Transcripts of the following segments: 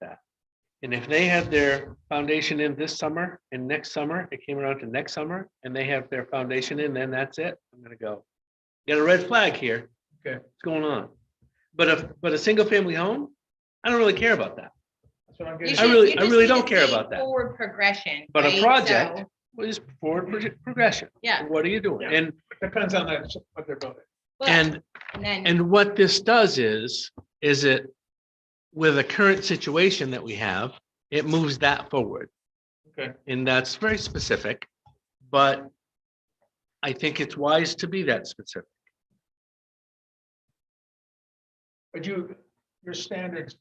that. And if they had their foundation in this summer and next summer, it came around to next summer, and they have their foundation in, then that's it. I'm gonna go. Got a red flag here. Okay. What's going on? But if, but a single family home, I don't really care about that. That's what I'm You getting. I should- really- you I just really need to don't care see about that. Forward progression. But a right? project- So, What is forward proje- progression? Yeah. What are you doing? Yeah. And, Depends on that, what they're building. well, and And then, And what this does is, is it, with the current situation that we have, it moves that forward. Okay. And that's very specific, but I think it's wise to be that specific. But you, your standards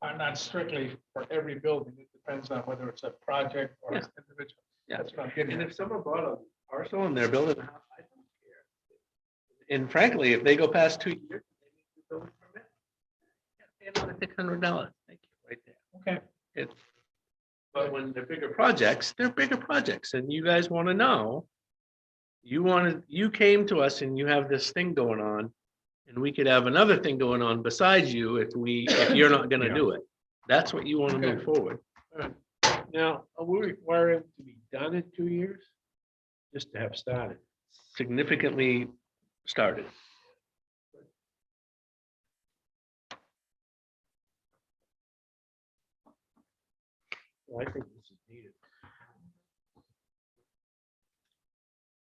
are not strictly for every building. It depends on whether it's a project or it's individual. Yeah. That's what I'm getting. And at. if someone bought a parcel and they're building a house, I don't care. And frankly, if they go past two years. Six hundred dollars. Right there. Okay. It's, but when they're bigger projects, they're bigger projects and you guys want to know. You wanted, you came to us and you have this thing going on. And we could have another thing going on besides you if we, if you're not gonna do it. That's what you want to move Okay. forward. Now, are we requiring it to be done in two years? Just to have started. Significantly started. Well, I think this is needed.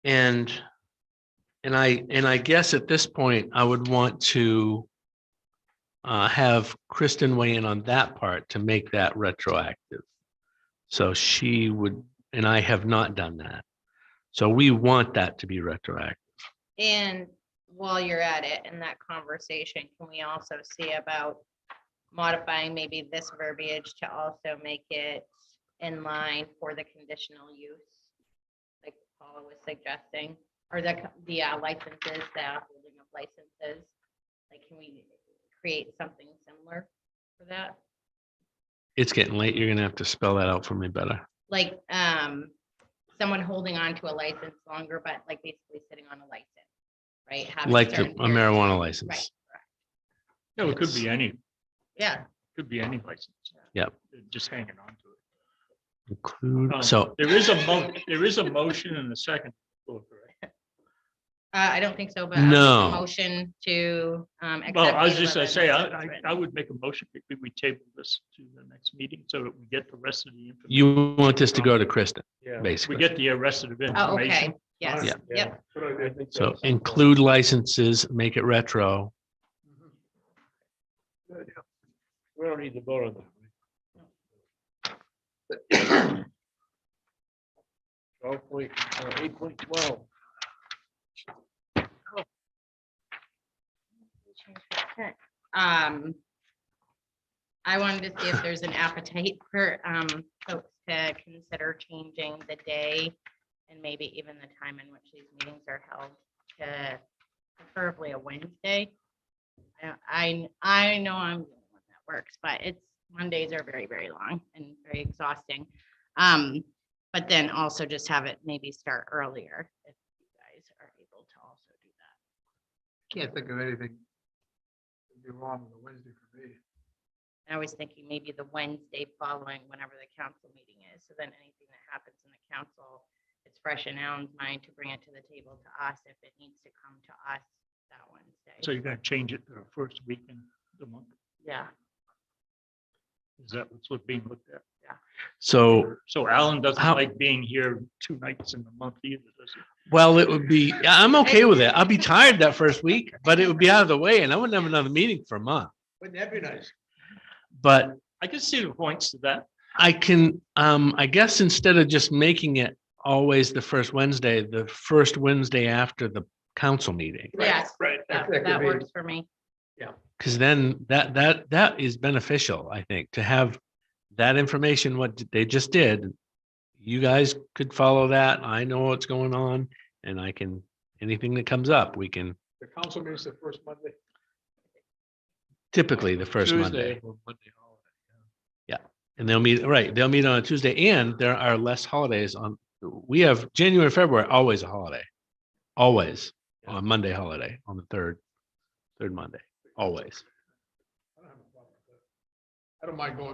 And, and I, and I guess at this point, I would want to uh, have Kristen weigh in on that part to make that retroactive. So she would, and I have not done that. So we want that to be retroactive. and while you're at it, in that conversation, can we also see about modifying maybe this verbiage to also make it in line for the conditional use? Like Paula was suggesting, or the, co- the uh, licenses, the holding of licenses. Like, can we create something similar for that? It's getting late. You're gonna have to spell that out for me better. like um someone holding on to a license longer, but like basically sitting on a license, right? Having Like the certain a period- marijuana Right, license. No, it could be any, yeah, could be any license. Yep. They're Just hanging on to it. Um, Include, so, There is a mo, there is a motion in the second. floor, correct? uh, I don't think so, but. I'll make a No. Motion to um. Well, accept I was the just gonna 11 say, I, as I, written. I would make a motion that we- we table this to the next meeting so that we get the rest of the. information. you want this to go to Kristen, Yeah. We basically. get the rest of the Oh, okay, information. yes, Yeah. yep, So include licenses, make it retro. Mm-hmm. We don't need to vote on that. Twelve point, uh, eight point twelve. um. I wanted to see if there's an appetite for um folks to consider changing the day and maybe even the time in which these meetings are held to preferably a Wednesday. I- I, I know I'm the only one that works, but it's, Mondays are very, very long and very exhausting. Um, but then also just have it maybe start earlier if you guys are able to also do that. Can't think of anything. that'd Be wrong with a Wednesday for me. And I was thinking maybe the Wednesday following whenever the council meeting is, so then anything that happens in the council, it's fresh in Alan's mind to bring it to the table to us if it needs to come to us that Wednesday. So you're gonna change it to the first weekend of the month? Yeah, Is that what's what being looked at? So, So Alan doesn't How- like being here two nights in the month either, does he? well, it would be, I'm okay with it. I'll be tired that first week, but it would be out of the way and I wouldn't have another meeting for a month. Wouldn't that be nice? But I can see the points to that. I can, um, I guess instead of just making it always the first Wednesday, the first Wednesday after the council meeting. yes, Right. that that could that be- works for me. Cause then that, that, that is beneficial, I think, to have that information, what they just did. You guys could follow that. I know what's going on and I can, anything that comes up, we can The council meets the first Monday. typically the first Monday. Tuesday or Monday holiday. And they'll meet, right, they'll meet on a Tuesday and there are less holidays on, we have January, February, always a holiday. Always on Monday holiday, on the third, third Monday, always. I don't have a problem with that. I don't mind going